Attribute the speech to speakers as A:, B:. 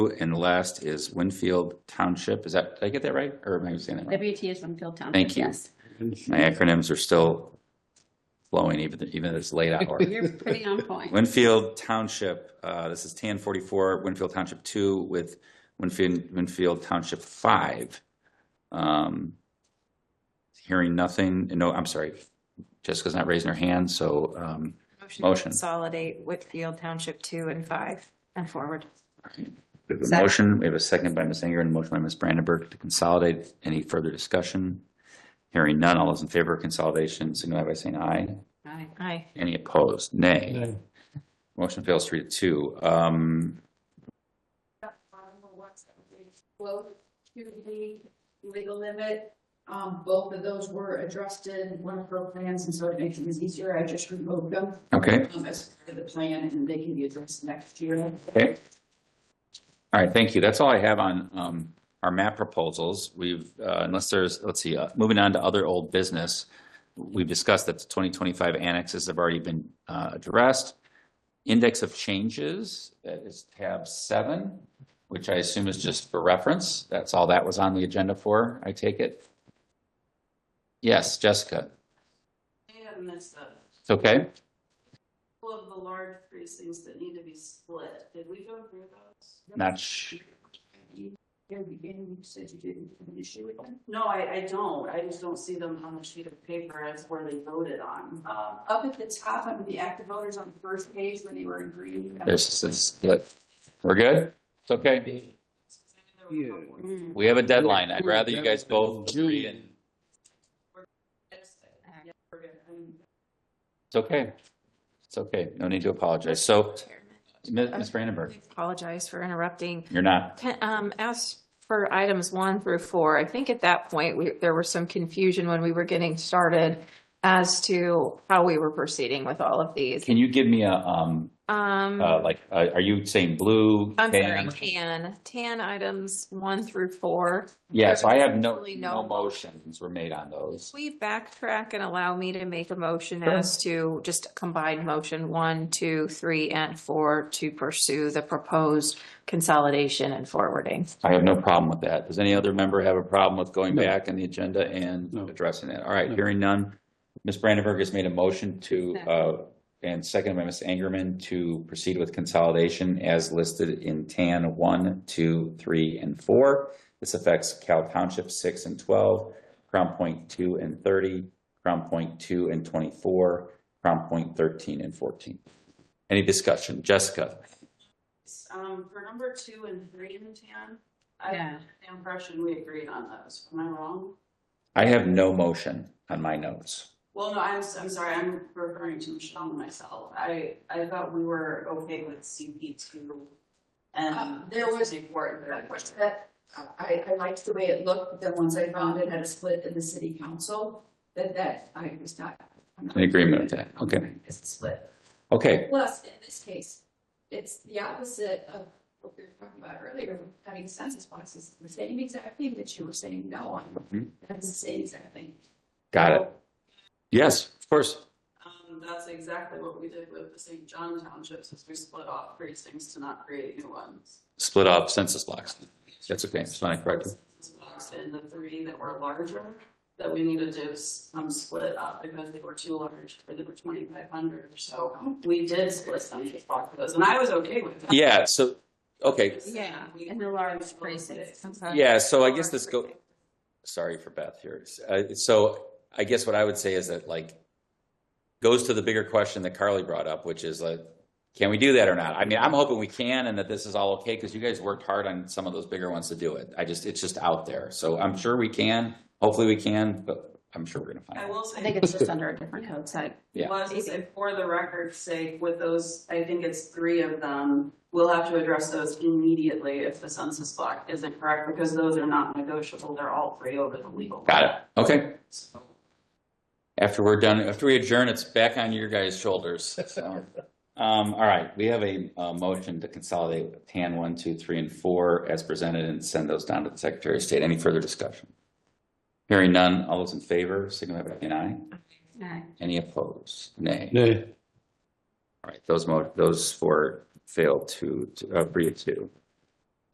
A: And last is Winfield Township. Is that, did I get that right? Or am I saying that wrong?
B: WT is Winfield Township.
A: Thank you.
B: yes.
A: My acronyms are still flowing even, even at this late hour.
B: You're pretty on point.
A: Winfield Township, uh, this is TAN 44, Winfield Township 2 with Winfield, Winfield Township 5. Um, Hearing nothing, no, I'm sorry, Jessica's not raising her hand, so, um,
C: to
A: Motion.
C: Consolidate Whitfield Township two and five and forward.
A: we have a
C: Second.
A: motion, we have a second by Ms. Anger and a motion by Ms. Brandenburg to consolidate. Any further discussion? Hearing none, all those in favor of consolidation, signify by saying aye.
B: Aye.
C: Aye.
A: Any opposed? Nay.
D: Nay.
A: Motion fails three to two. Um,
E: Well, to the legal limit, um, both of those were addressed in one of her plans, and so it makes things easier, I just removed them.
A: Okay,
E: um, As part of the plan, and they can be addressed next year.
A: okay. All right, thank you. That's all I have on um, our map proposals. We've, uh, unless there's, let's see, uh, moving on to other old business. We've discussed that the 2025 annexes have already been uh, addressed. Index of changes, that is tab seven, which I assume is just for reference. That's all that was on the agenda for, I take it? Yes, Jessica,
F: And there's a
A: it's okay?
F: couple of the large precincts that need to be split. Did we go through those?
A: Not, sh-
E: Here, beginning, you said you didn't have an issue with them.
F: No, I, I don't. I just don't see them on the sheet of paper as where they voted on. uh,
E: Um, up at the top, under the active voters on the first page, when they were in green.
A: there's, it's, we're good? It's okay?
F: There were a couple.
B: Mm.
A: We have a deadline. I'd rather you guys both agree and,
F: Yeah, we're good. Um,
A: it's okay. It's okay. No need to apologize. So, Mi- Ms. Brandenburg,
C: I Apologize for interrupting.
A: you're not,
C: Can, um, as for items one through four, I think at that point, we, there was some confusion when we were getting started as to how we were proceeding with all of these.
A: can you give me a, um,
C: Um,
A: uh, like, uh, are you saying blue?
C: I'm sorry,
A: tan?
C: tan, tan items one through four.
A: Yeah, so I have no,
C: Really no
A: no motions were made on those.
C: We backtrack and allow me to make a motion as to just combine motion one, two, three, and four to pursue the proposed consolidation and forwarding.
A: I have no problem with that. Does any other member have a problem with going
D: No.
A: back on the agenda and
D: No.
A: addressing that? All right,
D: No.
A: hearing none. Ms. Brandenburg has made a motion to,
B: Second.
A: uh, and seconded by Ms. Angerman to proceed with consolidation as listed in TAN one, two, three, and four. This affects Cal Township six and twelve, Crown Point two and thirty, Crown Point two and twenty-four, Crown Point thirteen and fourteen. Any discussion? Jessica?
F: Um, for number two and three in the tan, I
B: Yeah.
F: have the impression we agreed on those. Am I wrong?
A: I have no motion on my notes.
F: Well, no, I'm, s- I'm sorry, I'm referring to Michelle and myself. I, I thought we were okay with CP two
E: Uh,
A: Um,
F: and.
E: there was- I
F: important.
E: pushed that, Uh, I, I liked the way it looked, but then once I found it had a split in the city council, that, that I was not. I'm not-
A: In agreement with that, okay.
E: It's a split.
A: Okay,
E: Plus, in this case, it's the opposite of what we were talking about earlier, having census boxes, the same exact thing that you were saying no on.
A: Mhm.
E: That's the same exact thing.
A: got it. Yes, of course.
F: Um, that's exactly what we did with the St. John townships, is we split off precincts to not create new ones.
A: Split off census blocks. That's okay, it's not correct.
F: Blocks in the three that were larger, that we needed to, um, split up because they were too large, or they were twenty-five hundred, so we did split some of those, and I was okay with that.
A: Yeah, so, okay,
B: Yeah, in the large precincts.
A: yeah, so I guess this go, sorry for Beth here. Uh, so I guess what I would say is that like, goes to the bigger question that Carly brought up, which is like, can we do that or not? I mean, I'm hoping we can and that this is all okay, because you guys worked hard on some of those bigger ones to do it. I just, it's just out there. So I'm sure we can, hopefully we can, but I'm sure we're gonna find
F: I
A: out.
F: will
B: I
F: say.
B: think it's just under a different code site.
A: Yeah.
F: Well, I was gonna say, for the record's sake, with those, I think it's three of them, we'll have to address those immediately if the census block isn't correct, because those are not negotiable, they're all three over the legal.
A: Got it, okay.
F: it.
A: After we're done, after we adjourn, it's back on your guys' shoulders. So, Um, all right, we have a, uh motion to consolidate TAN one, two, three, and four as presented and send those down to the Secretary of State. Any further discussion? Hearing none, all those in favor, signify by saying aye.
B: Aye.
A: Any opposed? Nay.
D: Nay.
A: All right, those mo, those four fail to, to- uh, three to two.